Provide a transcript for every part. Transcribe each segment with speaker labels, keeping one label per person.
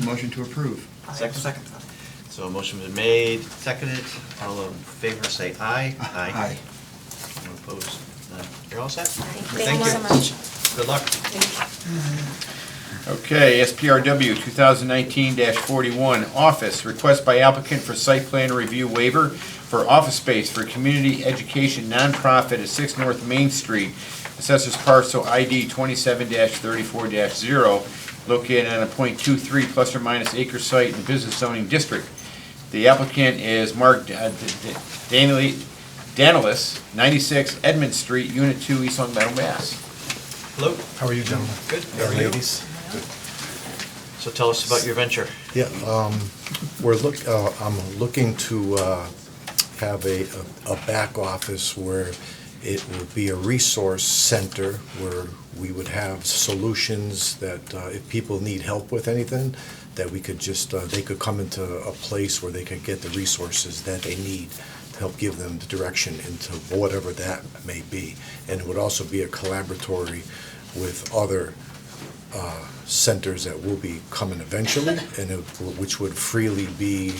Speaker 1: motion to approve.
Speaker 2: Second.
Speaker 3: Second.
Speaker 2: So a motion been made, seconded, all in favor say aye. Anyone Opposed? None. You're all set?
Speaker 4: Thank you so much.
Speaker 2: Good luck.
Speaker 5: Okay, SPRW 2019-41, office, request by applicant for site plan review waiver for office space for community education nonprofit at 6 North Main Street, assessors parcel ID 27-34-0, located on a .23 plus or minus acre site in business zoning district. The applicant is Mark uh, Da- Da- Da- Danili- Danilis, 96 Edmund Street, Unit 2, East Long Meadow, Mass.
Speaker 2: Hello?
Speaker 6: How are you, gentlemen?
Speaker 2: Good.
Speaker 6: How are you? Ladies?
Speaker 2: So tell us about your venture.
Speaker 6: Yeah, um, we're look, uh, I'm looking to, uh, have a, a back office where it would be a resource center where we would have solutions that, uh, if people need help with anything, that we could just, uh, they could come into a place where they could get the resources that they need to help give them the direction into whatever that may be. And it would also be a collaboratory with other uh, centers that will be coming eventually, and it- which would freely be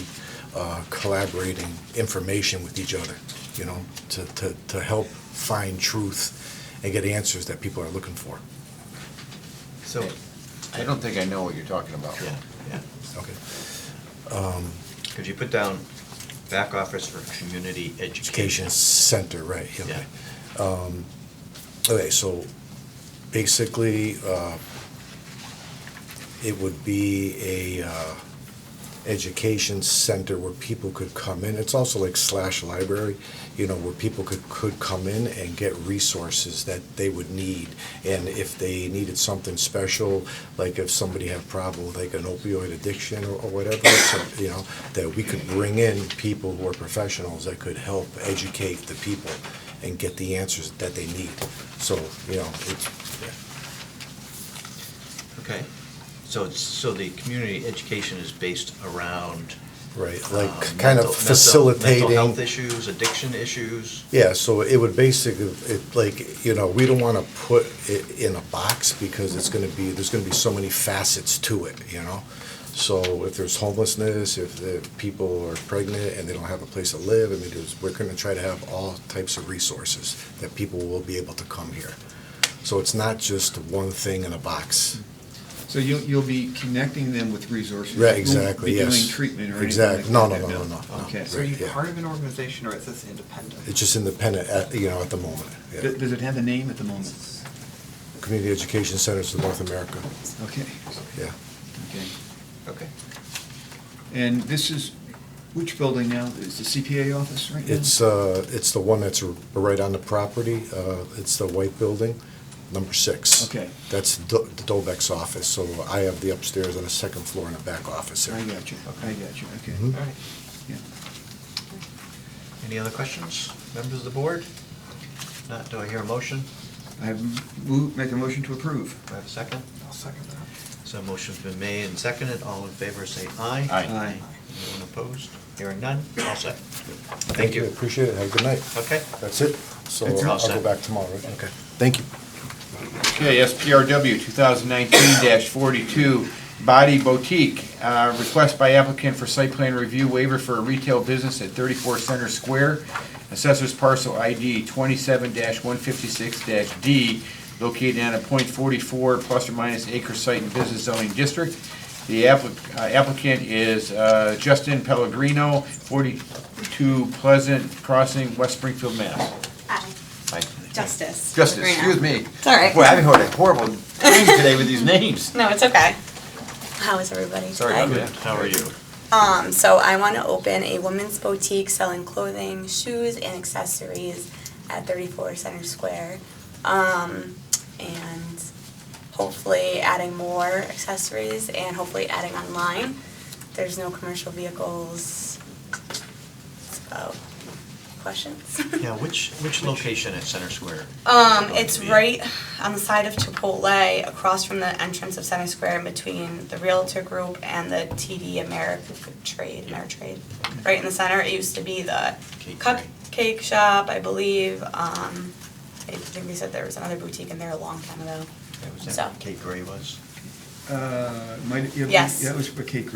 Speaker 6: uh, collaborating information with each other, you know, to, to, to help find truth and get answers that people are looking for.
Speaker 2: So,
Speaker 5: I don't think I know what you're talking about.
Speaker 2: yeah, yeah.
Speaker 6: Okay.
Speaker 2: Could you put down back office for community
Speaker 6: Education
Speaker 2: education?
Speaker 6: Center, right, yeah,
Speaker 2: Yeah.
Speaker 6: okay. Um, Okay, so basically, uh, it would be a uh, education center where people could come in. It's also like slash library, you know, where people could, could come in and get resources that they would need. And if they needed something special, like if somebody had a problem with like an opioid addiction or or whatever, so, you know, that we could bring in people who are professionals that could help educate the people and get the answers that they need. So, you know, it's,
Speaker 2: Okay. So it's, so the community education is based around.
Speaker 6: right,
Speaker 2: um,
Speaker 6: like kind
Speaker 2: mental- mental-
Speaker 6: of facilitating.
Speaker 2: Mental health issues, addiction issues.
Speaker 6: Yeah, so it would basically, it, like, you know, we don't wanna put it in a box because it's gonna be, there's gonna be so many facets to it, you know? So if there's homelessness, if the people are pregnant and they don't have a place to live, I mean, there's, we're gonna try to have all types of resources that people will be able to come here. So it's not just one thing in a box.
Speaker 1: So you'll, you'll be connecting them with resources.
Speaker 6: Right,
Speaker 1: You won't
Speaker 6: exactly,
Speaker 1: Be doing
Speaker 6: yes.
Speaker 1: treatment or anything.
Speaker 6: Exactly.
Speaker 1: like
Speaker 6: No,
Speaker 1: that,
Speaker 6: no, no,
Speaker 1: Bill?
Speaker 6: no, no, no.
Speaker 1: Okay.
Speaker 3: So are you
Speaker 6: Right, yeah.
Speaker 3: part of an organization or is this independent?
Speaker 6: It's just independent, at, you know, at the moment,
Speaker 1: Th-
Speaker 6: yeah.
Speaker 1: Does it have a name at the moment?
Speaker 6: Community Education Centers of North America,
Speaker 1: Okay,
Speaker 6: yeah.
Speaker 1: okay.
Speaker 2: Okay.
Speaker 1: And this is, which building now? Is the CPA office right now?
Speaker 6: It's, uh, it's the one that's r- right on the property, uh, it's the white building, number six.
Speaker 1: Okay.
Speaker 6: That's Do- the Dolbeck's office, so I have the upstairs on the second floor and a back office there.
Speaker 1: I got you, I got you, okay.
Speaker 6: Mhm.
Speaker 2: All right.
Speaker 1: Yeah.
Speaker 2: Any other questions, members of the board? Not, do I hear a motion?
Speaker 1: I have move, make a motion to approve.
Speaker 2: Do I have a second?
Speaker 3: I'll second that.
Speaker 2: So motion's been made and seconded. All in favor, say aye.
Speaker 5: Aye.
Speaker 1: Aye.
Speaker 2: Anyone opposed? Hearing none? All set.
Speaker 6: Thank you, appreciate it, have a good night.
Speaker 2: Okay.
Speaker 6: That's it, so
Speaker 2: It's all
Speaker 6: I'll go
Speaker 2: set.
Speaker 6: back tomorrow, right? Okay, thank you.
Speaker 5: Okay, SPRW 2019-42, Body Boutique, uh, request by applicant for site plan review waiver for a retail business at 34 Center Square, assessors parcel ID 27-156-D, located on a .44 plus or minus acre site in business zoning district. The applic- uh, applicant is uh, Justin Pellegrino, 42 Pleasant Crossing, West Springfield, Mass.
Speaker 4: Aye. Uh, Justice.
Speaker 5: Justice,
Speaker 4: Greenup.
Speaker 5: excuse me.
Speaker 4: It's all right.
Speaker 5: Boy, I've heard a horrible thing today with these names.
Speaker 4: No, it's okay. How is everybody?
Speaker 5: Sorry
Speaker 4: Hi.
Speaker 5: about that.
Speaker 2: How are you?
Speaker 4: Um, so I want to open a women's boutique selling clothing, shoes, and accessories at 34 Center Square. Um, and hopefully adding more accessories and hopefully adding online. There's no commercial vehicles. So, questions?
Speaker 2: Yeah, which, which location at Center Square?
Speaker 4: Um, it's right on the side of Chipotle, across from the entrance of Center Square, in between the Realtor Group and the TD America Trade, Ameritrade. Right in the center, it used to be the
Speaker 2: Cake
Speaker 4: cupcake shop, I believe, um, I think they said there was another boutique in there a long time ago.
Speaker 2: Yeah, Was
Speaker 4: So.
Speaker 2: that Kate Gray was?
Speaker 1: Uh, uh, might, yeah,
Speaker 4: Yes.
Speaker 1: yeah, it was for Kate